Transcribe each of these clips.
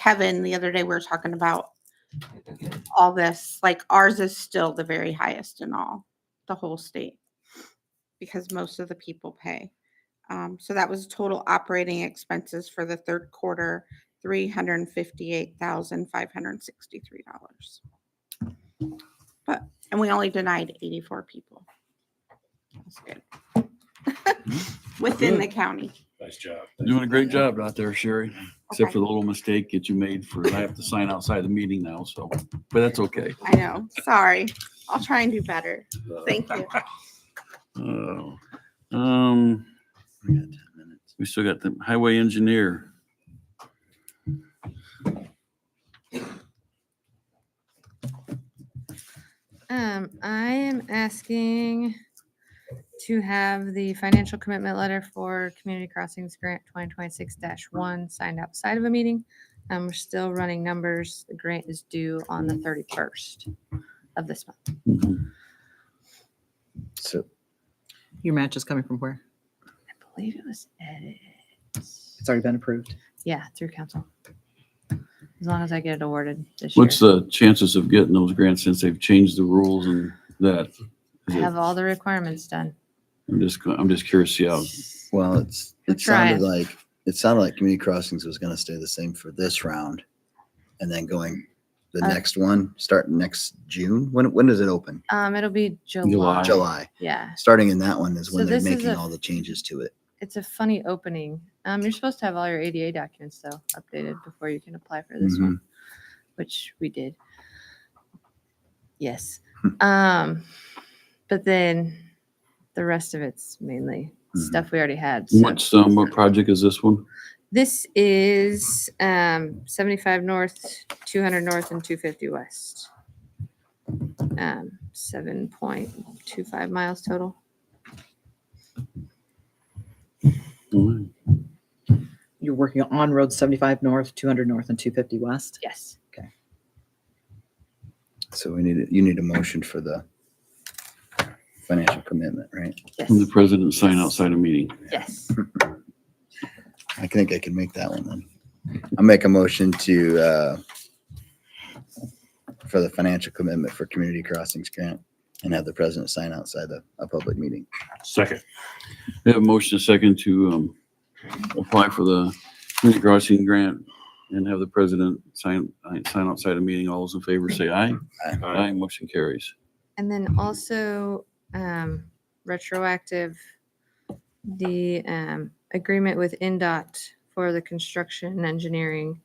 Kevin the other day, we were talking about all this. Like ours is still the very highest in all the whole state because most of the people pay. Um, so that was total operating expenses for the third quarter, three hundred and fifty-eight thousand five hundred and sixty-three dollars. But and we only denied eighty-four people. That's good. Within the county. Nice job. Doing a great job out there, Sherry, except for the little mistake that you made for, I have to sign outside the meeting now, so, but that's okay. I know. Sorry. I'll try and do better. Uh, Thank you. Oh, Um, we got 10 minutes. we still got the highway engineer. Um, I am asking to have the financial commitment letter for Community Crossings Grant twenty twenty-six one signed outside of a meeting. Um, we're still running numbers. The grant is due on the thirty-first of this month. Mhm. So Your match is coming from where? I believe it was edited. It's already been approved. Yeah, through council. As long as I get it awarded this year. What's the chances of getting those grants since they've changed the rules and that? Is I it- have all the requirements done. I'm just, I'm just curious, yeah, well, it's We're it sounded trying. like it sounded like community crossings was going to stay the same for this round, and then going the Uh, next one starting next June. When when does it open? Um, it'll be July. July. July. Yeah. Starting in that one is So when they're this is making a- all the changes to it. it's a funny opening. Um, you're supposed to have all your ADA documents though updated before you can apply for this one, which we did. Yes. um, but then the rest of it's mainly Mhm. stuff we already had. so- what's, um, what project is this one? This is um, 75 north, 200 north, and 250 west. Um, 7.25 miles total. Alright. You're working on Road 75 North, 200 North, and 250 West. Yes. So we need a, you need a motion for the financial commitment, right? Yes. From the president sign outside a meeting. Yes. I think I can make that one then. I'll make a motion to uh, for the financial commitment for community crossings grant and have the president sign outside a, a public meeting. Second. We have a motion and second to um, apply for the community crossing grant and have the president sign, uh, sign outside a meeting. All those in favor say aye. Aye, motion carries. And then also um, retroactive, the um, agreement with NDOT for the construction and engineering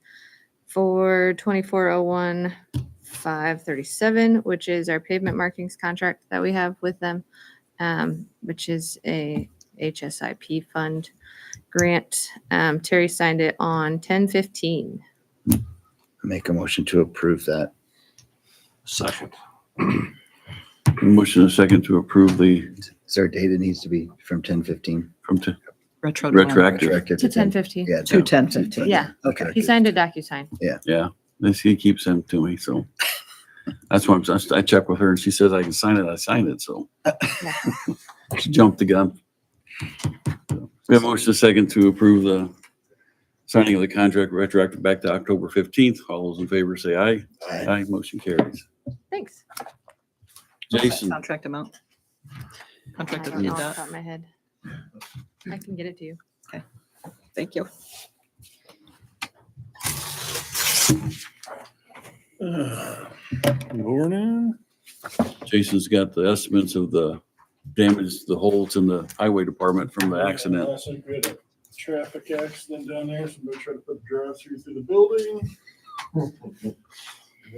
for 2401 537, which is our pavement markings contract that we have with them, um, which is a HSIP fund grant. Um, Terry signed it on 1015. Make a motion to approve that. Second. Motion and second to approve the, Is there a date that needs to be from ten fifteen? from, t- Retro. Retroactive. Retroactive To to ten. 1015. Yeah. To 10:15. Yeah. Okay. He signed a DocuSign. yeah, this, he keeps them to me, so. That's why I'm, I checked with her and she says I can sign it, I signed it, so. She jumped the gun. We have a motion and second to approve the signing of the contract retroactive back to October 15th. All those in favor say aye. Aye. Aye, motion carries. Thanks. Jason, Contract amount. I Contract don't know off the amount. top of my head. I can get it to you. Thank you. Morning. Jason's got the estimates of the damage, the holes in the highway department from the accident. Last week we had a Traffic accident down there, somebody tried to put a drive-through through the building.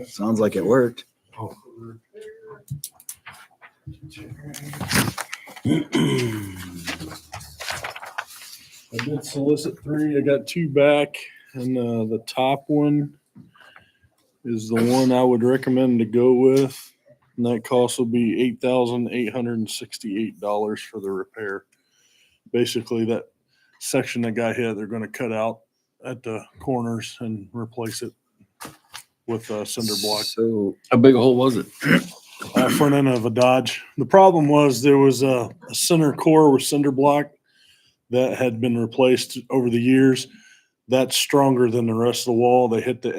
Sounds like it worked. I did solicit three, I got two back, and uh, the top one is the one I would recommend to go with. And that cost will be eight thousand eight hundred and sixty-eight dollars for the repair. Basically, that section that got hit, they're gonna cut out at the corners and replace it with uh, cinder block So How big a hole was it? uh, front end of a Dodge. The problem was there was a, a center core with cinder block that had been replaced over the years. that's stronger than the rest of the wall. They hit the